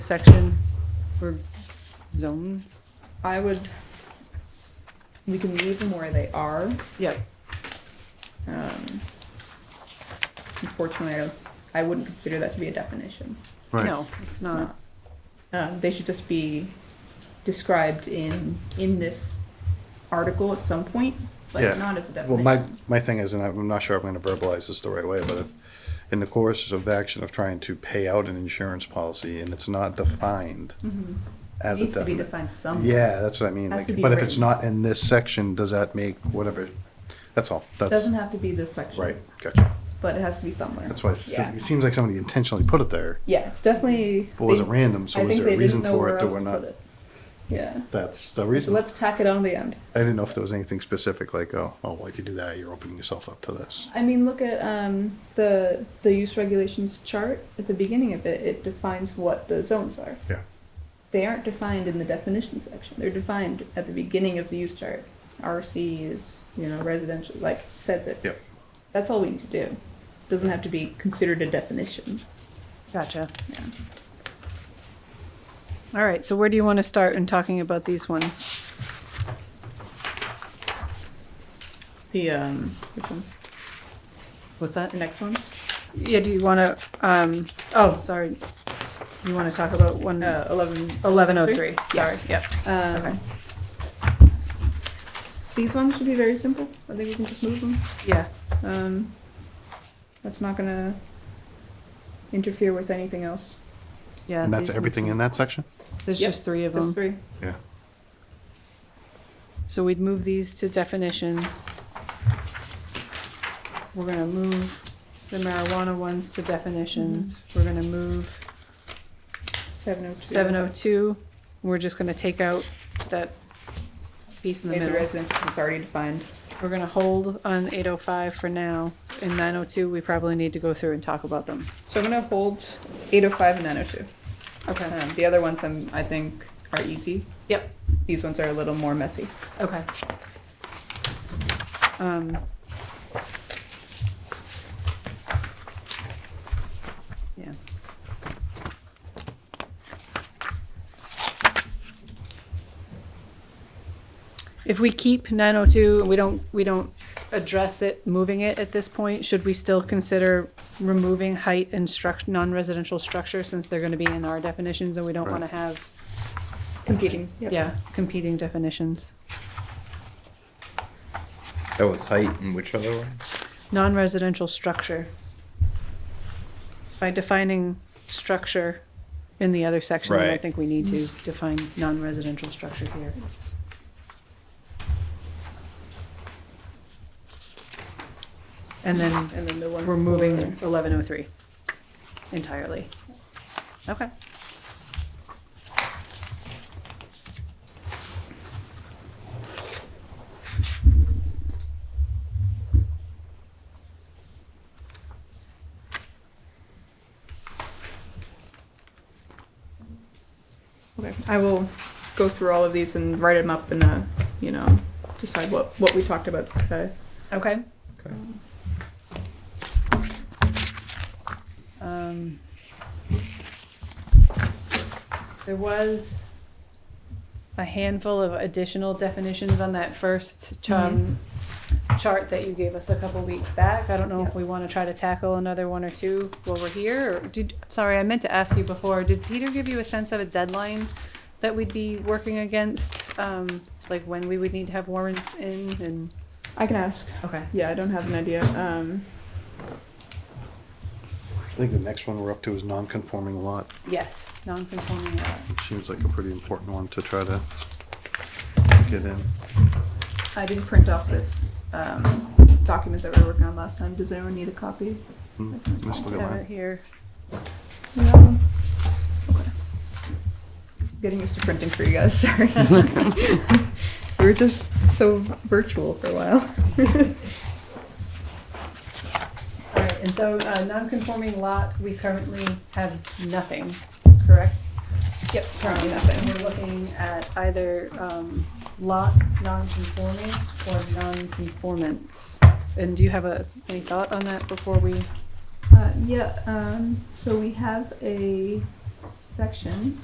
section or zones? I would, we can leave them where they are. Yep. Um, Unfortunately, I don't, I wouldn't consider that to be a definition. Right. No, it's It's not. not. Um, They should just be described in, in this article at some point, Yeah. but not as a Well, my, definition. my thing is, and I'm not sure I'm gonna verbalize this the right way, but if, in the course of action of trying to pay out an insurance policy and it's not defined Mhm. as a Needs to be definite. defined somewhere. Yeah, that's what I mean, Has like, to be but if it's written. not in this section, does that make whatever, that's all, that's, Doesn't have to be this section. right, gotcha. But it has to be somewhere. That's why it se- Yeah. it seems like somebody intentionally put it there, Yeah, it's definitely. but was it they- random, I so was think there a they didn't reason know for where it, or else we're to not? put it. Yeah. That's the So reason, I let's tack it on the end. didn't know if there was anything specific, like, oh, oh, well, if you do that, you're opening yourself up to this. I mean, look at um, the the use regulations chart at the beginning of it. It defines what the zones are. Yeah. They aren't defined in the definition section. They're defined at the beginning of the use chart. RC is you know residential, like says it. Yep. That's all we need to do. Doesn't have to be considered a definition. Gotcha. Yeah. All right, so where do you want to start in talking about these ones? The um, which one's What's that? the next one? Yeah, do you want to, um, oh, sorry. You want to talk about one, Uh, Eleven. eleven oh three, Yeah. sorry, yep. Um, Okay. These ones should be very simple. I think we can just move them. Yeah, Um, that's not gonna interfere with anything else. yeah. And that's these everything make in that section? sense. There's Yep, just three of Just them. three. Yeah. So we'd move these to definitions. We're gonna move the marijuana ones to definitions. We're gonna move Seven oh two. seven oh two. We're just gonna take out that piece in the It's a middle. residence, it's already defined. We're gonna hold on eight oh five for now. In nine oh two, we probably need to go through and talk about them. So I'm gonna hold eight oh five and nine oh two. Okay. Um, the other ones I'm, I think are easy. Yep, These ones are a little more messy. okay. Um. Yeah. If we keep nine oh two, and we don't, we don't address it, moving it at this point, should we still consider removing height and struct, non-residential structure, since they're gonna be in our definitions, and we don't wanna Right. have, Competing. yeah, competing definitions? That was height and which other one? non-residential structure. By defining structure in the other section, then I Right. think we need to define non-residential structure here. And then And then the one. we're moving for- eleven oh three entirely. Okay. Okay, I will go through all of these and write them up and, uh, you know, decide what, what we talked about today. Okay. Okay. Um, There was a handful of additional definitions on that first ch- um, chart that you gave us a couple weeks back. I don't know if Yeah. we want to try to tackle another one or two while we're here, or did, sorry, I meant to ask you before, did Peter give you a sense of a deadline that we'd be working against? Um, Like when we would need to have warrants in and? I can ask. Okay. Yeah, I don't have an idea. Um, I think the next one we're up to is non-conforming lot. Yes, non-conforming lot. It seems like a pretty important one to try to get in. I didn't print off this um, document that we were working on last time. Does anyone need a copy? Hmm, Missed the Have it line. here. No. Okay. Getting used to printing for you guys. Sorry. we were just so virtual for a while. All right, and so uh, non-conforming lot, we currently have nothing, correct? yep, Currently currently nothing. nothing. We're looking at either um, lot non-conforming or non-conformance. And do you have a, any thought on that before we? Uh, yeah. Um, so we have a section.